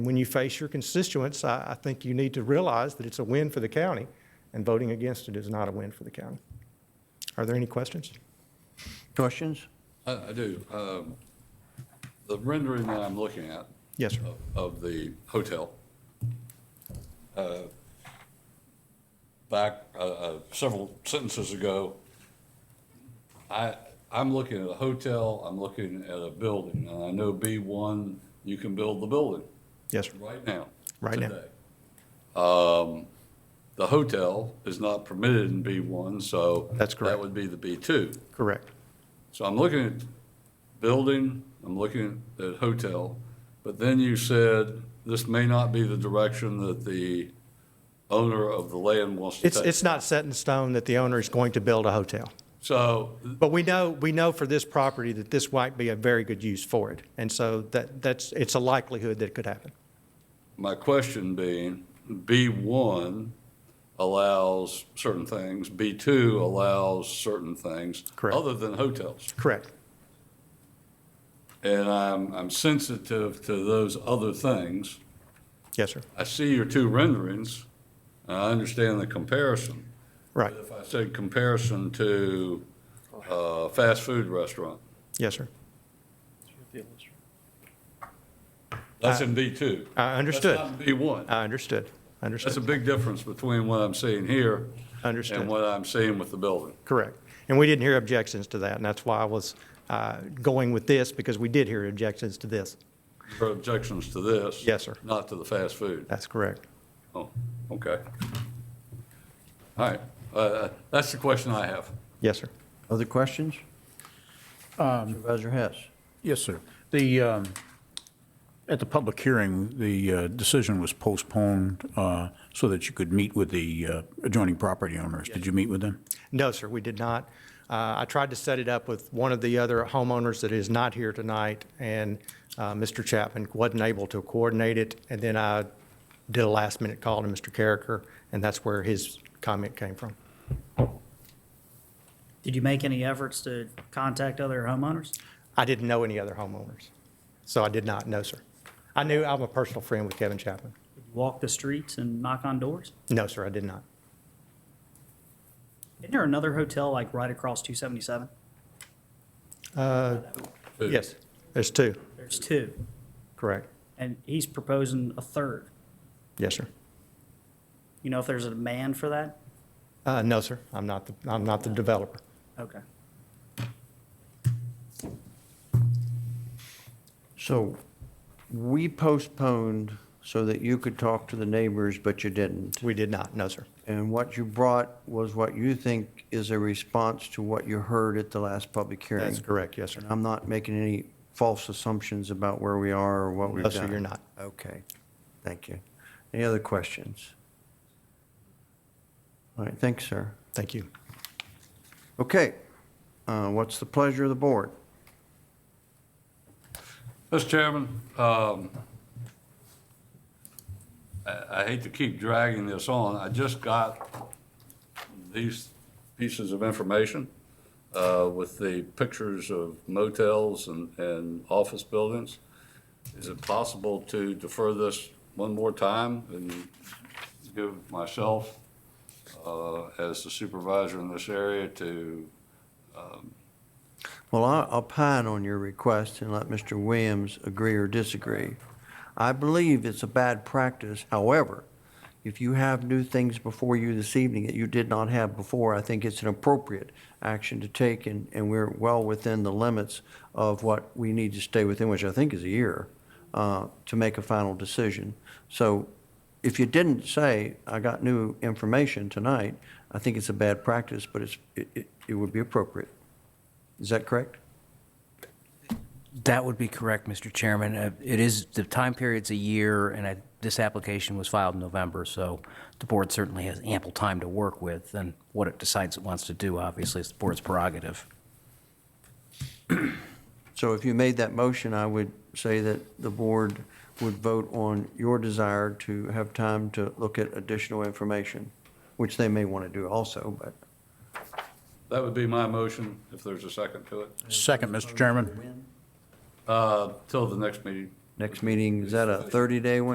When you face your constituents, I, I think you need to realize that it's a win for the county, and voting against it is not a win for the county. Are there any questions? Questions? I, I do. Um, The rendering that I'm looking at Yes, sir. of- of the hotel, uh, back uh, uh, several sentences ago, I, I'm looking at a hotel, I'm looking at a building, and I know B1, you can build the building Yes, sir. right now. Right now. today. Um, The hotel is not permitted in B1, so. That's correct. That would be the B2. Correct. So I'm looking at building, I'm looking at hotel, but then you said this may not be the direction that the owner of the land wants to It's, take. it's not set in stone that the owner is going to build a hotel. So, But we know, we know for this property that this might be a very good use for it. And so that, that's, it's a likelihood that it could happen. my question being, B1 allows certain things, B2 allows certain things. Correct. Other than hotels. Correct. And I'm, I'm sensitive to those other things. Yes, sir. I see your two renderings, and I understand the comparison. Right. If I said comparison to a fast food restaurant, Yes, sir. that's in B2. I understood. That's not in B1. I understood. That's a Understood. big difference between what I'm seeing here and Understood. what I'm seeing with the building. Correct. And we didn't hear objections to that, and that's why I was uh, going with this, because we did hear objections to this. There are objections to this. Yes, sir. Not to the fast food. That's correct. Oh, okay. All right, Uh, that's the question I have. Yes, sir. Other questions? Supervisor Hess? Yes, sir. The, um, at the public hearing, the uh, decision was postponed uh, so that you could meet with the uh, adjoining property owners. Did you meet with them? No, sir, we did not. Uh, I tried to set it up with one of the other homeowners that is not here tonight, and uh, Mr. Chapman wasn't able to coordinate it, and then I did a last-minute call to Mr. Carricker, and that's where his comment came from. Did you make any efforts to contact other homeowners? I didn't know any other homeowners, so I did not, no, sir. I knew, I'm a personal friend with Kevin Chapman. Walk the streets and knock on doors? No, sir, I did not. Isn't there another hotel like right across 277? Food. Yes, there's two, There's two, correct. and he's proposing a third. Yes, sir. You know if there's a demand for that? Uh, No, sir, I'm not, the I'm not the developer. Okay. So we postponed so that you could talk to the neighbors, but you didn't. We did not, no, sir. And what you brought was what you think is a response to what you heard at the last public hearing. That's correct, yes, sir. And I'm not making any false assumptions about where we are or what we've No, done. sir, you're not. Okay, thank you. Any other questions? All right, thanks, sir. Thank you. Okay, uh, what's the pleasure of the board? Mr. Chairman, um, I I hate to keep dragging this on. I just got these pieces of information uh, with the pictures of motels and, and office buildings. Is it possible to defer this one more time and give myself, uh, as the supervisor in this area, to um, Well, I- I'll pine on your request and let Mr. Williams agree or disagree. I believe it's a bad practice, however, if you have new things before you this evening that you did not have before, I think it's an appropriate action to take, and, and we're well within the limits of what we need to stay within, which I think is a year, uh, to make a final decision. So if you didn't say, I got new information tonight, I think it's a bad practice, but it's, it, it- it would be appropriate. Is that correct? That would be correct, Mr. Chairman. Uh, It is, the time period's a year, and I- this application was filed in November, so the board certainly has ample time to work with, and what it decides it wants to do, obviously, is the board's prerogative. So if you made that motion, I would say that the board would vote on your desire to have time to look at additional information, which they may want to do also, but That would be my motion, if there's a second to it, Second, Mr. Chairman. uh, till the next meeting. next meeting, is that a 30-day one?